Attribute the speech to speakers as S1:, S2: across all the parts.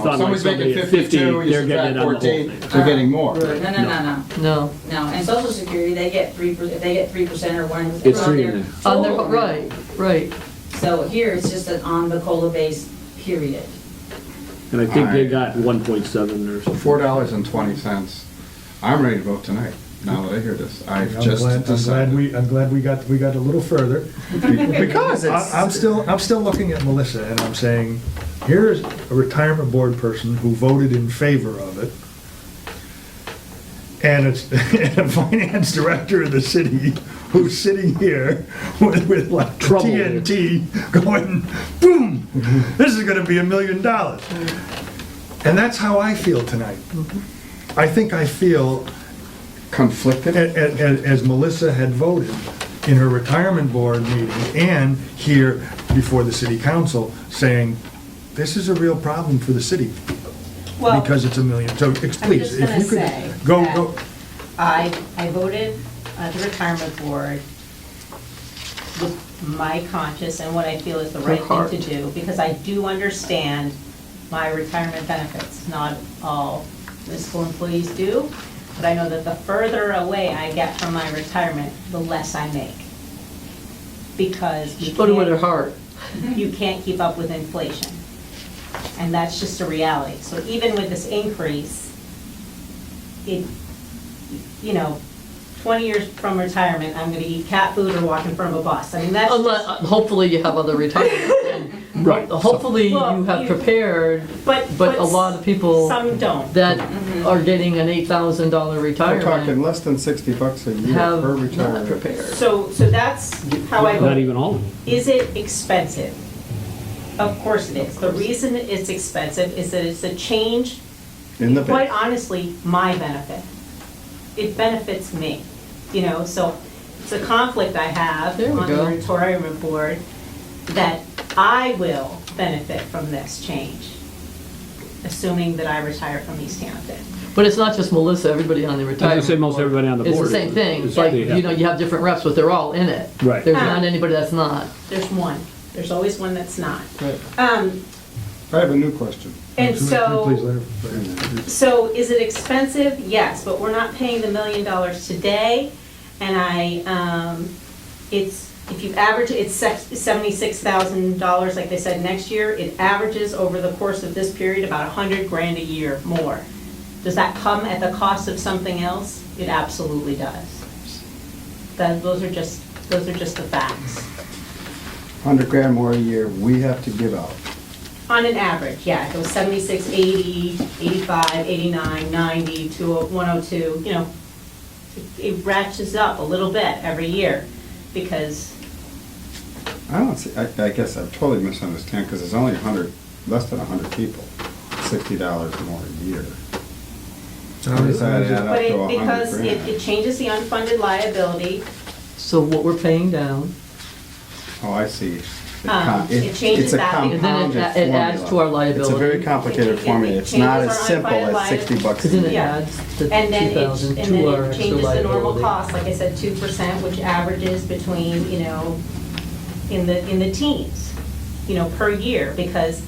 S1: on like
S2: Someone's making
S1: somebody at 50,
S2: 52, you
S1: they're getting
S2: subtract
S1: it on the whole
S2: 14,
S1: thing.
S2: they're getting more.
S3: No,
S2: Right.
S3: no, no, no,
S4: No,
S3: no. And social security, they get three, if they get three percent or one.
S1: It's
S3: on
S1: three
S3: their
S1: and a-
S4: on their,
S3: total.
S4: right, right.
S3: So here, it's just an on the COLA base, period.
S1: And I think they
S2: Alright.
S1: got 1.7 or something.
S2: Four dollars and twenty cents. I'm ready to vote tonight, now that I hear this. I've
S5: I'm
S2: just
S5: glad, I'm glad
S2: decided.
S5: we, I'm glad we got, we got a little further.
S6: Because it's-
S5: I- I'm still, I'm still looking at Melissa and I'm saying, here's a retirement board person who voted in favor of it. And it's, and a finance director of the city who's sitting here with, with like
S1: Trouble.
S5: TNT going, boom, this is gonna be a million dollars. And that's how I feel tonight. I think I feel
S2: Conflicted?
S5: a- a- a- as Melissa had voted in her retirement board meeting and here before the city council, saying, this is a real problem for the city
S7: Well-
S5: because it's a million, so ex-
S7: I'm
S5: please,
S7: just
S5: if
S7: gonna
S5: you could,
S7: say
S5: go,
S7: that
S5: go,
S7: I, I voted at the retirement board with my conscience and what I feel is the right thing to do, because I do understand my retirement benefits. Not all municipal employees do, but I know that the further away I get from my retirement, the less I make. Because you
S4: She put it with her
S7: can't,
S4: heart.
S7: you can't keep up with inflation. And that's just a reality. So even with this increase, it, you know, 20 years from retirement, I'm going to eat cat food or walk in front of a bus. I mean, that's
S4: Unless,
S7: just,
S4: hopefully you have other retirement. plan.
S1: Right.
S4: Hopefully you
S7: Well,
S4: have
S7: you-
S4: prepared
S7: but.
S4: but a lot of people-
S7: Some don't.
S4: that
S7: Mm-hmm.
S4: are getting an eight thousand dollar
S2: We're talking
S4: retirement
S2: less than sixty bucks a year
S4: have
S2: per
S4: not
S2: retirement.
S4: prepared.
S7: So, so that's how I
S1: Not
S7: vote.
S1: even all of them.
S7: Is it expensive? Of course it is. The reason it's expensive is that it's a change
S2: In the
S7: quite
S2: bank.
S7: honestly, my benefit. It benefits me, you know, so it's a conflict I have
S4: There we
S7: on the
S4: go.
S7: moratorium board that I will benefit from this change, assuming that I retire from East Hampton.
S4: But it's not just Melissa, everybody on the
S1: I
S4: retirement.
S1: say most
S4: board.
S1: everybody on the board.
S4: It's the same
S1: is-
S4: thing,
S1: is
S4: like,
S1: they have-
S4: you know, you have different reps, but they're all in it.
S1: Right.
S4: There's
S7: Ah.
S4: not anybody that's not.
S7: There's one, there's always one that's not.
S2: Right.
S7: Um,
S2: I have a new question.
S7: And
S5: please,
S7: so,
S5: Larry.
S7: so is it expensive? Yes, but we're not paying the million dollars today, and I, um, it's, if you average, it's seventy-six thousand dollars, like they said, next year. It averages over the course of this period about a hundred grand a year more. Does that come at the cost of something else? It absolutely does. That, those are just, those are just the facts.
S2: Hundred grand more a year we have to give out.
S7: On an average, yeah, it goes 76, 80, 85, 89, 90, 20, 102, you know, it- it ratchets up a little bit every year because,
S2: I don't see, I, I guess I totally misunderstand, because there's only a hundred, less than a hundred people, sixty dollars more a year. How does that add up
S7: but
S2: to
S7: it,
S2: a
S7: because
S2: hundred
S7: it it
S2: grand?
S7: changes the unfunded liability,
S4: So what we're paying down,
S2: Oh, I see. It
S7: Um,
S2: com-
S7: it changes
S2: it's a
S7: that because-
S4: And then it
S2: compounded
S4: a- it adds
S2: formula.
S4: to our
S2: It's a very
S4: liability.
S2: complicated
S7: It- it
S2: formula, it's not
S7: changes
S2: as
S7: our
S2: simple as
S7: unfunded
S2: sixty bucks a
S4: because then
S2: year.
S4: it
S7: Yeah.
S4: adds the two
S7: and then it,
S4: thousand
S7: and
S4: to
S7: then
S4: our
S7: it
S4: extra
S7: changes the normal
S4: liability.
S7: cost, like I said, 2%, which averages between, you know, in the, in the teens, you know, per year, because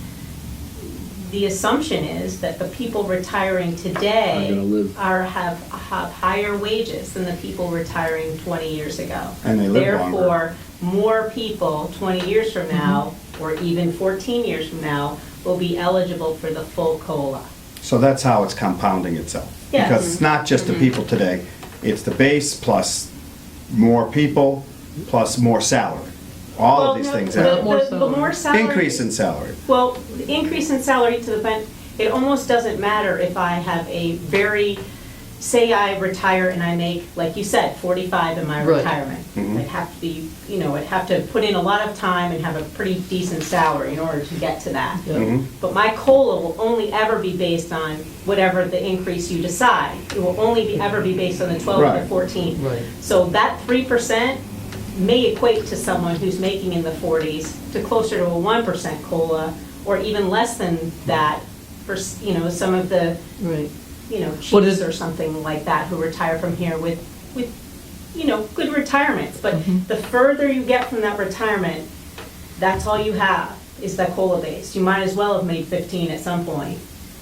S7: the assumption is that the people retiring
S1: Are gonna
S7: today
S1: live.
S7: are, have, have higher wages than the people retiring 20 years ago.
S2: And they live longer.
S7: Therefore, more people 20 years from
S4: Mm-hmm.
S7: now, or even 14 years from now, will be eligible for the full COLA.
S2: So that's how it's compounding itself.
S7: Yeah.
S2: Because it's not just the
S7: Mm-hmm.
S2: people today, it's the base plus more people, plus more salary. All
S7: Well,
S2: of these
S7: no,
S2: things
S7: the-
S2: add up.
S4: More
S7: the- The more salary.
S2: Increase in salary.
S7: Well, the increase in salary to the ben, it almost doesn't matter if I have a very, say I retire and I make, like you said, 45 in my
S4: Right.
S7: retirement. I'd have to be, you know, I'd have to put in a lot of time and have a pretty decent salary in order to get to that.
S4: Yeah.
S7: But my COLA will only ever be based on whatever the increase you decide. It will only be, ever be based on the 12 or the
S2: Right.
S7: 14.
S4: Right.
S7: So that 3% may equate to someone who's making in the 40s to closer to a 1% COLA, or even less than that for, s- you know, some of the,
S4: Right.
S7: you know,
S4: What is-
S7: chiefs or something like that who retire from here with, with, you know, good retirements. But
S4: Mm-hmm.
S7: the further you get from that retirement, that's all you have, is that COLA base. You might as well have made 15 at some point.